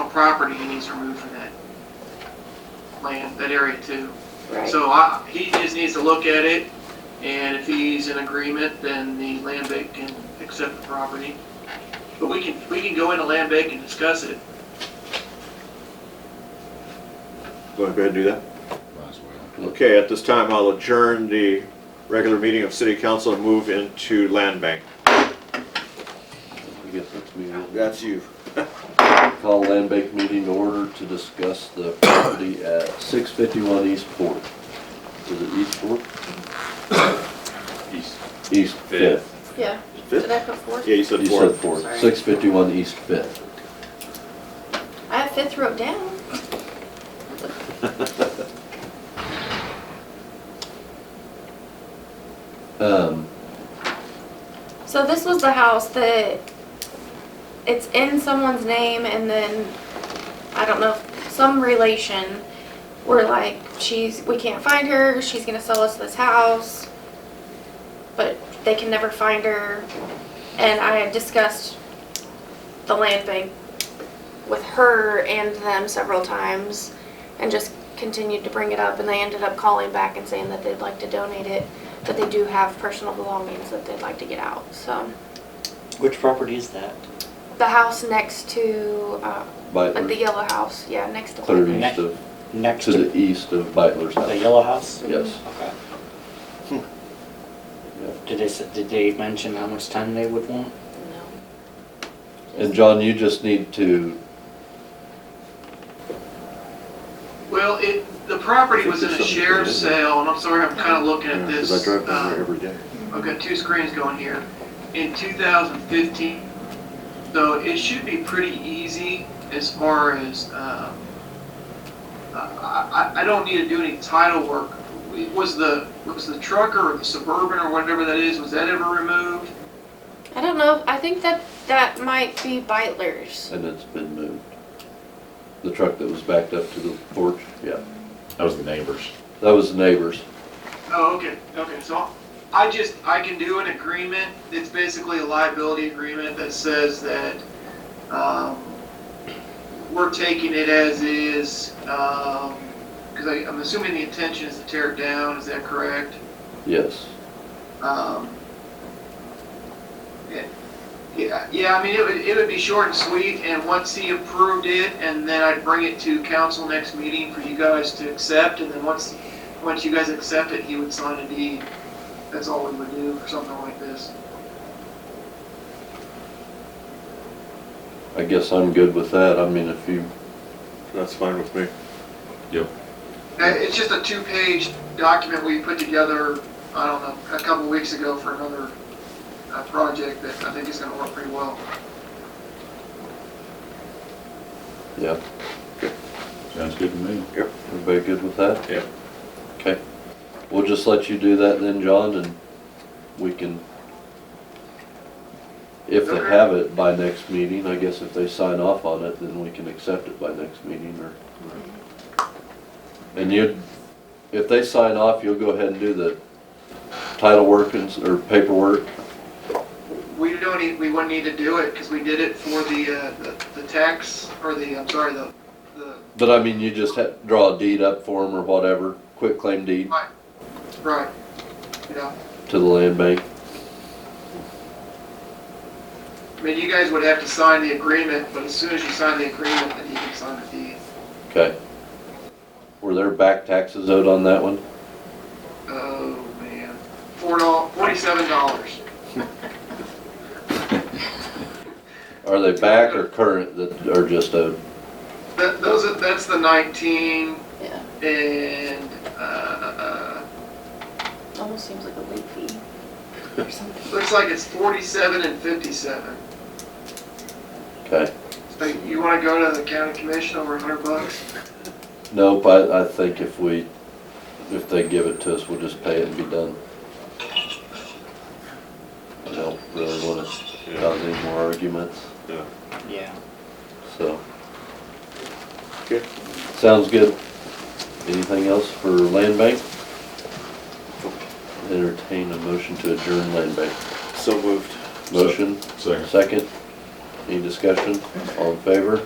property he needs removed from that land, that area too. right? So I, he just needs to look at it, and if he's in agreement, then the land bank can accept the property. But we can, we can go into land bank and discuss it. Want to go ahead and do that? Might as well. Okay, at this time, I'll adjourn the regular meeting of city council and move into land bank. I guess that's me. That's you. Call land bank meeting to order to discuss the property at six fifty-one East Port. Is it East Port? East East Fifth. Fifth. Yeah, did Fifth? I put fourth? Yeah, you said You said fourth. Port, Sorry. six fifty-one East Fifth. I have fifth wrote down. Um, So this was the house that it's in someone's name and then, I don't know, some relation. We're like, she's, we can't find her, she's gonna sell us this house. But they can never find her. And I had discussed the land bank with her and them several times and just continued to bring it up and they ended up calling back and saying that they'd like to donate it but they do have personal belongings that they'd like to get out. So Which property is that? the house next to, uh, like the Bitler, yellow house, yeah, next to. clear Plymouth. east of, Next to to the east of Bitler's the house. yellow house? Yes. Okay. Yeah. Did they, s- did they mention how much time they would want? And John, you just need to, Well, it, the property was in a sheriff's sale, and I'm sorry, I'm kinda looking at this. Because I drive down uh, there every day. I've got two screens going here. In 2015, so it should be pretty easy as far as, um, I, I, I don't need to do any title work. Was the, was the trucker or the Suburban or whatever that is, was that ever removed? I don't know. I think that that might be Beitler's. and it's been moved. The truck that was backed up to the porch, yeah, That was the neighbors. that was the neighbors. Oh, okay, okay, so I just, I can do an agreement, it's basically a liability agreement that says that, um, we're taking it as is, um, cause I, I'm assuming the intention is to tear it down, is that correct? Yes, Um, yeah- Yeah, yeah, I mean, it would, it would be short and sweet, and once he approved it, and then I'd bring it to council next meeting for you guys to accept, and then once, once you guys accept it, he would sign a deed. That's all we would do for something like this. I guess I'm good with that. I mean, if you, That's fine with me. Uh, It's just a two-page document we put together, I don't know, a couple weeks ago for another, uh, project that I think is gonna work pretty well. yeah, Sounds good to me. everybody good with that? Yep. Okay, we'll just let you do that then, John, and we can, if they Okay. have it by next meeting, I guess if they sign off on it, then we can accept it by next meeting or. And you, if they sign off, you'll go ahead and do the title work and, s- or paperwork. We don't need, we wouldn't need to do it, because we did it for the, uh, the- the tax, or the, I'm sorry, the, the, But I mean, you just ha draw a deed up for them or whatever, quit claim deed right, yeah. to the land bank. I mean, you guys would have to sign the agreement, but as soon as you sign the agreement, then you can sign the deed. Okay. Were there back taxes owed on that one? Oh, man. Four doll, forty-seven dollars. Are they back or current that are just owed? That, those are, that's the nineteen, Yeah, and, uh, uh, almost seems like a late fee or something. looks like it's forty-seven and fifty-seven. Okay. So you wanna go to the county commission over a hundred bucks? Nope, I, I think if we, if they give it to us, we'll just pay it and be done. I don't really wanna cause any more arguments, Yeah. so. Okay. Sounds good. Anything else for land bank? Entertain a motion to adjourn land bank. So moved. Motion? Second. Second. Any discussion? All in favor?